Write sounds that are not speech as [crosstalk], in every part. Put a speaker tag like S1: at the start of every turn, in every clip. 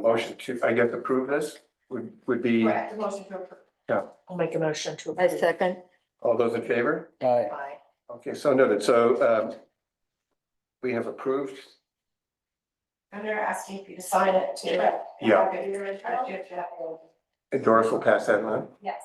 S1: motion to, I guess, approve this would, would be,
S2: Correct, the motion to approve.
S3: I'll make a motion to
S4: I
S3: approve.
S4: second.
S1: all those in favor?
S5: Aye.
S3: Aye.
S1: Okay, so noted. So um, we have approved.
S2: And they're asking if you to sign it too.
S1: Yeah.
S2: Okay, you're in charge, you have to have your-
S1: And Doris will pass that on.
S2: Yes.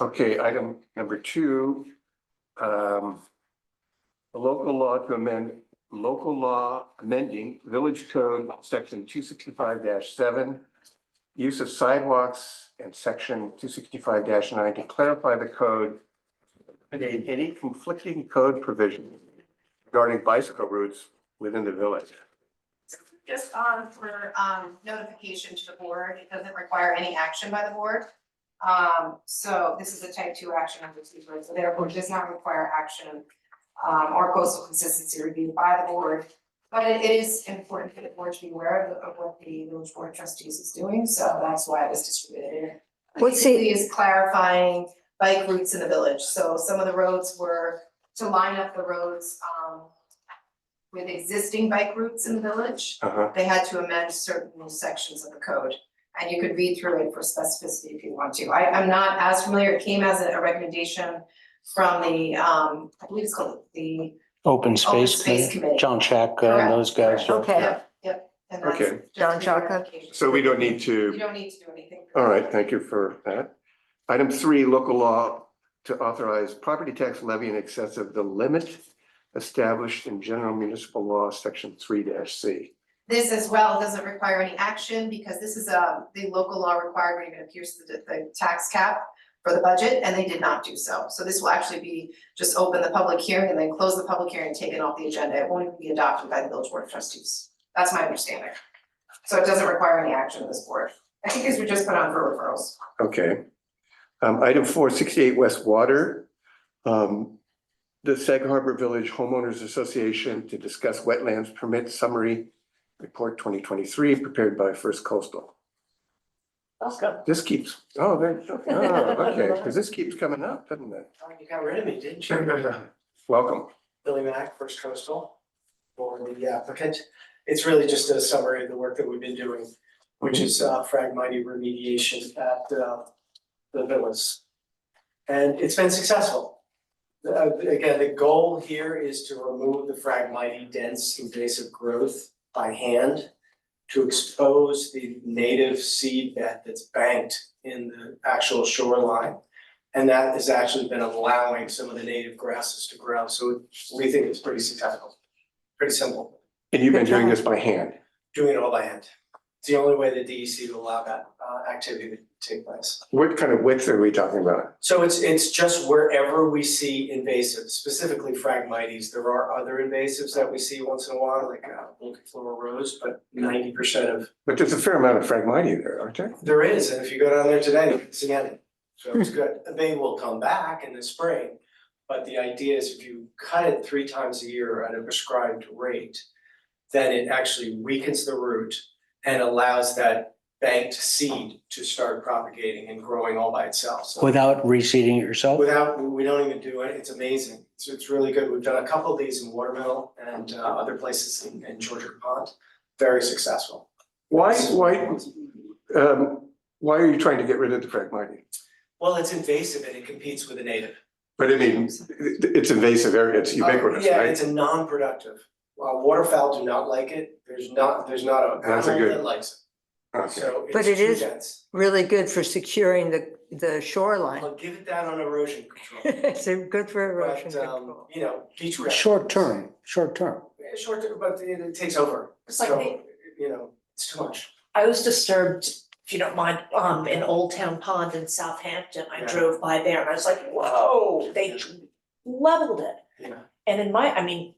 S1: Okay, item number two. um, A local law to amend, local law amending village code section two sixty-five seven. Use of sidewalks and section two sixty-five nine to clarify the code. eliminate Any conflicting code provision regarding bicycle routes within the village.
S2: Just on for um notification to the board, it doesn't require any action by the board. Um, so this is a type two action under two, so therefore does not require action um or coastal consistency review by the board. But it is important for the board to be aware of the- of what the village board trustees is doing, so that's why it was distributed.
S4: What's the-
S2: Basically is clarifying bike routes in the village, so some of the roads were to line up the roads um with existing bike routes in the village
S1: Uh-huh.
S2: they had to amend certain sections of the code. And you could read through it for specificity if you want to. I, I'm not as familiar, it came as a a recommendation from the, um, I believe it's called the
S5: Open
S2: Open
S5: Space
S2: Space
S5: Committee,
S2: Committee.
S5: John Chaka and those guys.
S2: Correct.
S5: are-
S4: Okay.
S2: Yep, Yep, and that's.
S1: Okay.
S2: just
S4: John
S2: a
S4: Chaka.
S2: clarification.
S1: So we don't need to.
S2: You don't need to do anything.
S1: All right, thank you for that. Item three, local law to authorize property tax levy in excess of the limit established in general municipal law, section three C.
S2: This as well doesn't require any action because this is a, the local law requirement, even appears to the, the tax cap for the budget, and they did not do so. So this will actually be, just open the public hearing and then close the public hearing and take it off the agenda. It won't even be adopted by the village board of trustees. That's my understanding. So it doesn't require any action of this board. I think these were just put on for referrals.
S1: Okay. Um, item four, sixty-eight West Water. Um, the Sag Harbor Village Homeowners Association to discuss wetlands permit summary report twenty twenty-three prepared by First Coastal.
S3: Welcome.
S1: This keeps, oh, there, oh, okay, because this keeps coming up, doesn't it?
S6: Oh, You got rid of me, didn't you?
S1: Welcome.
S6: Billy Mack, First Coastal, for the applicant. It's really just a summary of the work that we've been doing, which is uh, fragmity remediation at uh, the villas. And it's been successful. Uh, Again, the goal here is to remove the fragmity dense invasive growth by hand to expose the native seed bed that's banked in the actual shoreline. And that has actually been allowing some of the native grasses to grow, so we think it's pretty successful. Pretty simple,
S1: And you've been doing
S6: [laughs]
S1: this by hand?
S6: doing it all by hand. It's the only way the DEC will allow that uh activity to take place.
S1: What kind of width are we talking about?
S6: So it's it's just wherever we see invasives, specifically Phragmites, there are other invasives that we see once in a while, like uh Longiflora rose, but ninety percent of
S1: But there's a fair amount of fragmity there, aren't there?
S6: There is, and if you go down there today, you can see any. So it's good. They will come back in the spring. But the idea is if you cut it three times a year at a prescribed rate, then it actually weakens the root and allows that banked seed to start propagating and growing all by itself. So
S5: Without reseeding it yourself?
S6: without, we don't even do it. It's amazing. It's, it's really good. We've done a couple of these in Watermill and uh, other places in, in Georgia Pond. Very successful.
S1: Why, why, um, why are you trying to get rid of the fragmity?
S6: Well, it's invasive and it competes with the native.
S1: But I mean, it- it's invasive area, it's ubiquitous,
S6: Uh, Yeah,
S1: right?
S6: it's a non-productive. Uh, waterfowl do not like it. There's not, there's not a
S1: That's a
S6: animal
S1: good-
S6: that likes it.
S1: Okay.
S6: So
S4: But
S6: it's
S4: it
S6: too
S4: is-
S6: dense.
S4: Really good for securing the, the shoreline. [laughs]
S6: I'll give it that on erosion control.
S4: It's a- good for erosion
S6: But, um,
S4: control.
S6: you know, beach grass.
S5: Short term, short term.
S6: Yeah, Short, term, but it it takes over.
S3: It's like
S6: So,
S3: they-
S6: You know, it's too much.
S3: I was disturbed, if you don't mind, um, in Old Town Pond in Southampton. I
S6: Yeah.
S3: drove by there and I was like, whoa, they leveled it.
S6: Yeah.
S3: And in my, I mean,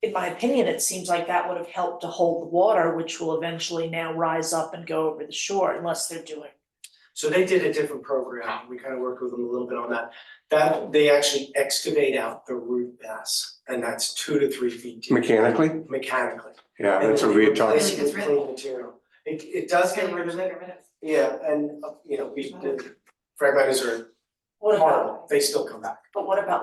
S3: in my opinion, it seems like that would have helped to hold the water, which will eventually now rise up and go over the shore unless they're doing.
S6: So they did a different program. We kind of worked with them a little bit on that. That, they actually excavate out the root mass and that's two to three feet deep.
S1: Mechanically?
S6: Mechanically.
S1: Yeah,
S6: And
S1: that's
S6: then
S1: what we
S6: you
S1: had
S6: replace
S1: talked,
S2: talking-
S6: it with clean material. It it does get rid of it,
S2: Minutes.
S6: yeah, and, uh, you know, we, the fragmites are What about,
S3: Horrible. They still come back.
S6: but what about